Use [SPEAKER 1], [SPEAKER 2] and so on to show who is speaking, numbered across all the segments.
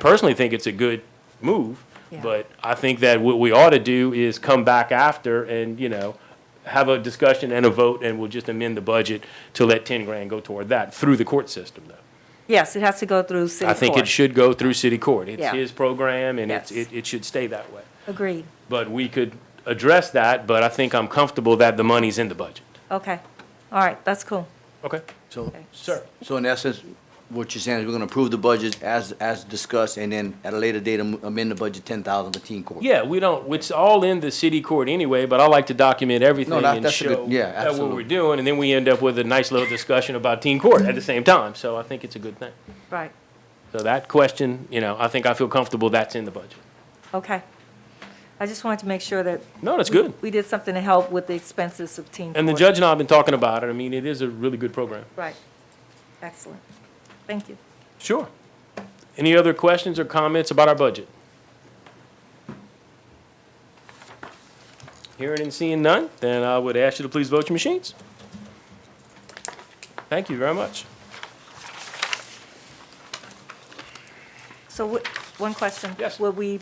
[SPEAKER 1] personally think it's a good move,
[SPEAKER 2] Yeah.
[SPEAKER 1] but I think that what we ought to do is come back after and, you know, have a discussion and a vote, and we'll just amend the budget to let ten grand go toward that, through the court system, though.
[SPEAKER 2] Yes, it has to go through city
[SPEAKER 1] I think it
[SPEAKER 2] court.
[SPEAKER 1] should go through city court. It's
[SPEAKER 2] Yeah.
[SPEAKER 1] his program, and it's,
[SPEAKER 2] Yes.
[SPEAKER 1] it, it should stay that way.
[SPEAKER 2] Agreed.
[SPEAKER 1] But we could address that, but I think I'm comfortable that the money's in the budget.
[SPEAKER 2] Okay. All right, that's cool.
[SPEAKER 1] Okay?
[SPEAKER 3] So,
[SPEAKER 1] Sir.
[SPEAKER 3] so in essence, what you're saying is we're gonna approve the budget as, as discussed, and then at a later date am- amend the budget ten thousand for teen court?
[SPEAKER 1] Yeah, we don't, it's all in the city court anyway, but I like to document everything
[SPEAKER 3] that-
[SPEAKER 1] and
[SPEAKER 3] that's a
[SPEAKER 1] show
[SPEAKER 3] good- yeah,
[SPEAKER 1] that what we're
[SPEAKER 3] absolutely.
[SPEAKER 1] doing, and then we end up with a nice little discussion about teen court at the same time, so I think it's a good thing.
[SPEAKER 2] Right.
[SPEAKER 1] So that question, you know, I think I feel comfortable that's in the budget.
[SPEAKER 2] Okay. I just wanted to make sure that
[SPEAKER 1] No, that's good.
[SPEAKER 2] we did something to help with the expenses of teen court.
[SPEAKER 1] And the judge and I have been talking about it. I mean, it is a really good program.
[SPEAKER 2] Right. Excellent. Thank you.
[SPEAKER 1] Sure. Any other questions or comments about our budget? Hearing and seeing none, then I would ask you to please vote your machines. Thank you very much.
[SPEAKER 2] So wh- one question.
[SPEAKER 1] Yes.
[SPEAKER 2] Will we,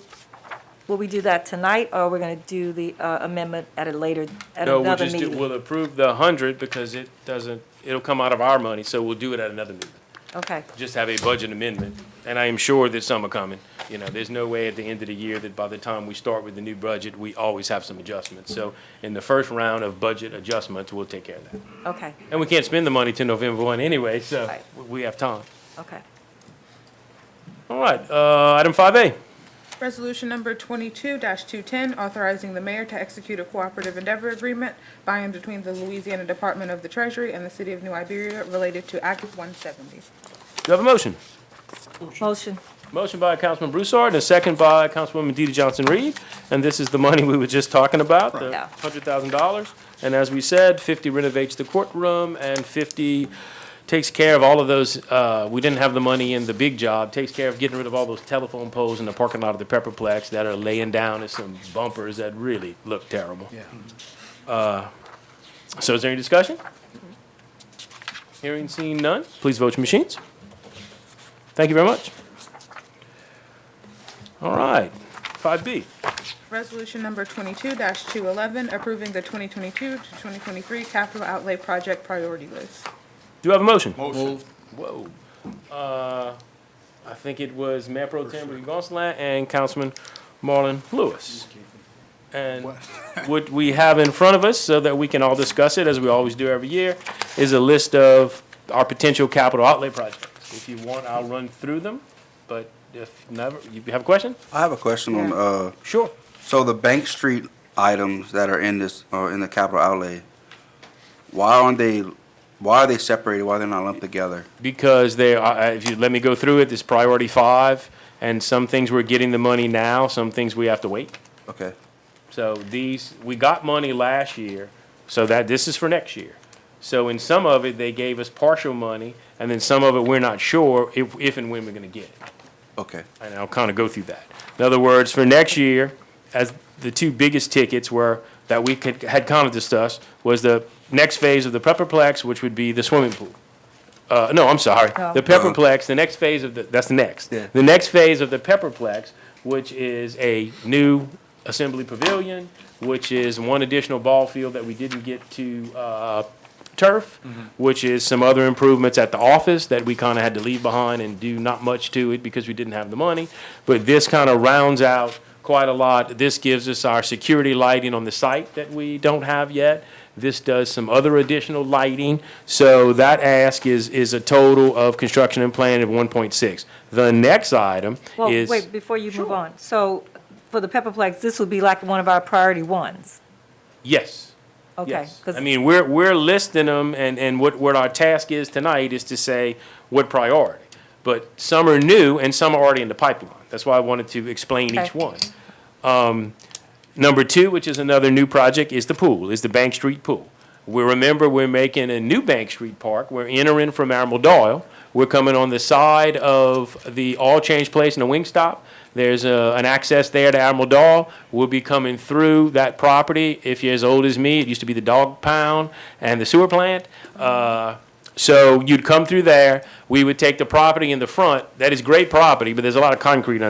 [SPEAKER 2] will we do that tonight, or we're going to do the uh, amendment at a later, at
[SPEAKER 1] No, we'll
[SPEAKER 2] another
[SPEAKER 1] just, do-
[SPEAKER 2] meeting?
[SPEAKER 1] we'll approve the hundred because it doesn't, it'll come out of our money, so we'll do it at another meeting.
[SPEAKER 2] Okay,
[SPEAKER 1] Just have a budget amendment, and I am sure that some are coming. You know, there's no way at the end of the year that by the time we start with the new budget, we always have some adjustments. So in the first round of budget adjustments, we'll take care of that.
[SPEAKER 2] okay,
[SPEAKER 1] And we can't spend the money till November one anyway, so
[SPEAKER 2] Right.
[SPEAKER 1] we- we have time.
[SPEAKER 2] okay.
[SPEAKER 1] All right, uh, item five A.
[SPEAKER 4] Resolution number twenty-two two-ten, authorizing the mayor to execute a cooperative endeavor agreement by and between the Louisiana Department of the Treasury and the City of New Iberia related to Act one seventy.
[SPEAKER 1] Do you have a motion?
[SPEAKER 2] Motion,
[SPEAKER 1] Motion by Councilman Broussard and a second by Councilwoman DeeDee Johnson-Reed. And this is the money we were just talking about, the
[SPEAKER 2] Yeah.
[SPEAKER 1] $100,000. And as we said, 50 renovates the courtroom and 50 takes care of all of those, uh, we didn't have the money in the big job, takes care of getting rid of all those telephone poles in the parking lot of the Pepperplex that are laying down as some bumpers that really look terrible. Yeah. So is there any discussion? Hearing seen none, please vote your machines. Thank you very much. All right, five B.
[SPEAKER 4] Resolution number twenty-two two-eleven, approving the twenty-twenty-two to twenty-twenty-three capital outlay project priority list.
[SPEAKER 1] Do you have a motion?
[SPEAKER 3] Moved.
[SPEAKER 1] Whoa. Uh, I think it was Mayor Pro Tem Ricky Gonsalas and Councilman Marlon Lewis. And what we have in front of us, so that we can all discuss it, as we always do every year, is a list of our potential capital outlay projects. If you want, I'll run through them, but if never, you have a question?
[SPEAKER 5] I have a question on, uh,
[SPEAKER 1] Sure.
[SPEAKER 5] so the Bank Street items that are in this, uh, in the capital outlay, why aren't they, why are they separated? Why are they not lumped together?
[SPEAKER 1] because they are, uh, if you let me go through it, it's priority five, and some things we're getting the money now, some things we have to wait.
[SPEAKER 5] Okay,
[SPEAKER 1] So these, we got money last year, so that, this is for next year. So in some of it, they gave us partial money, and then some of it, we're not sure if, if and when we're gonna get it
[SPEAKER 5] okay,
[SPEAKER 1] and I'll kind of go through that. In other words, for next year, as the two biggest tickets were, that we could, had kind of discussed, was the next phase of the Pepperplex, which would be the swimming pool. Uh, no, I'm sorry,
[SPEAKER 2] No.
[SPEAKER 1] the Pepperplex, the next phase of the, that's the next.
[SPEAKER 5] Yeah.
[SPEAKER 1] The next phase of the Pepperplex, which is a new Assembly Pavilion, which is one additional ball field that we didn't get to, uh, turf, which is some other improvements at the office that we kind of had to leave behind and do not much to it because we didn't have the money. But this kind of rounds out quite a lot. This gives us our security lighting on the site that we don't have yet. This does some other additional lighting. So that ask is, is a total of construction and plan of one point six. The next item
[SPEAKER 2] well,
[SPEAKER 1] is.
[SPEAKER 2] wait, before you move on. So for the Pepperplex, this would be like one of our priority ones?
[SPEAKER 1] Yes.
[SPEAKER 2] Okay.
[SPEAKER 1] Yes.
[SPEAKER 2] 'cause-
[SPEAKER 1] I mean, we're, we're listing them, and, and what, what our task is tonight is to say what priority. But some are new and some are already in the pipeline. That's why I wanted to explain each
[SPEAKER 2] Okay.
[SPEAKER 1] one. Um, Number two, which is another new project, is the pool, is the Bank Street Pool. We remember we're making a new Bank Street Park. We're entering from Admiral Doyle. We're coming on the side of the All Change Place and the Wingstop. There's a, an access there to Admiral Doyle. We'll be coming through that property. If you're as old as me, it used to be the dog pound and the sewer plant. Uh, So you'd come through there, we would take the property in the front, that is great property, but there's a lot of concrete